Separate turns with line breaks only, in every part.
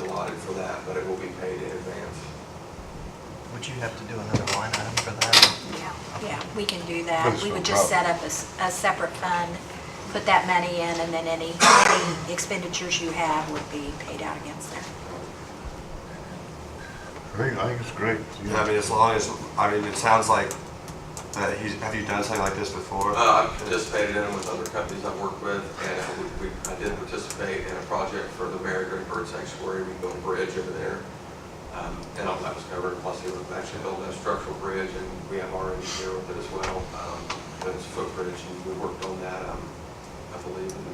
allotted for that, but it will be paid in advance.
Would you have to do another line item for that?
Yeah, yeah, we can do that.
That's
We
no
would just set
problem.
up a, s- a separate fund, put that money in, and then any, any expenditures you have would be paid out against that.
I think, I think it's great.
Yeah, I mean, as long as, I mean, it sounds like, uh, he's, have you done something like this before?
Uh, I've participated in with other companies I've worked with, and we, we- I did participate in a project for the Mary Gray Bird Sanctuary, we built a bridge over there. Um, and all that was covered, plus they were actually building a structural bridge, and we have our engineer with it as well, um, but it's a footbridge, and we worked on that, um, I believe in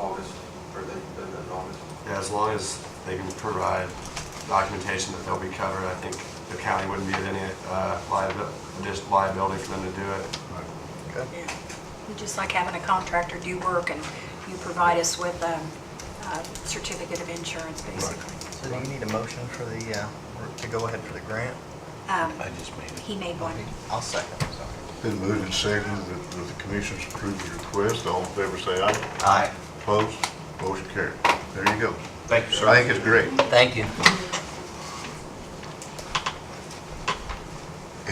August, or they've been in August.
Yeah, as long as they can provide documentation that they'll be covered, I think the county wouldn't be at any uh, liabi- just liability for them to do it.
Yeah. We Just like having a contractor do work, and you provide us with a, a certificate of insurance, basically.
So do you need a motion for the, uh, or to go ahead for the grant?
Um,
I just made it.
He made one.
I'll second.
Been moved and seconded that that the commission's approved the request. All in favor, say aye.
Aye.
Opposed? Motion carried. There you go.
Thank you,
I think it's great.
Thank you.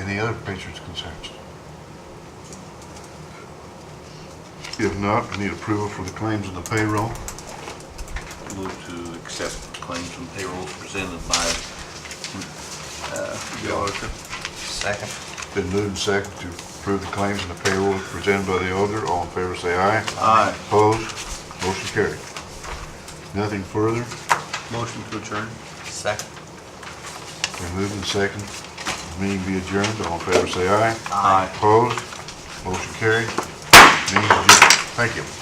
Any other patrons' concerns? If not, we need approval for the claims and the payroll.
Move to accept claims and payrolls presented by uh, the auditor.
Second.
Been moved and seconded to approve the claims and the payroll presented by the auditor. All in favor, say aye.
Aye.
Opposed? Motion carried. Nothing further.
Motion to adjourn.
Second.
Been moved and seconded. Meeting be adjourned. All in favor, say aye.
Aye.
Opposed? Motion carried. Meeting adjourned. Thank you.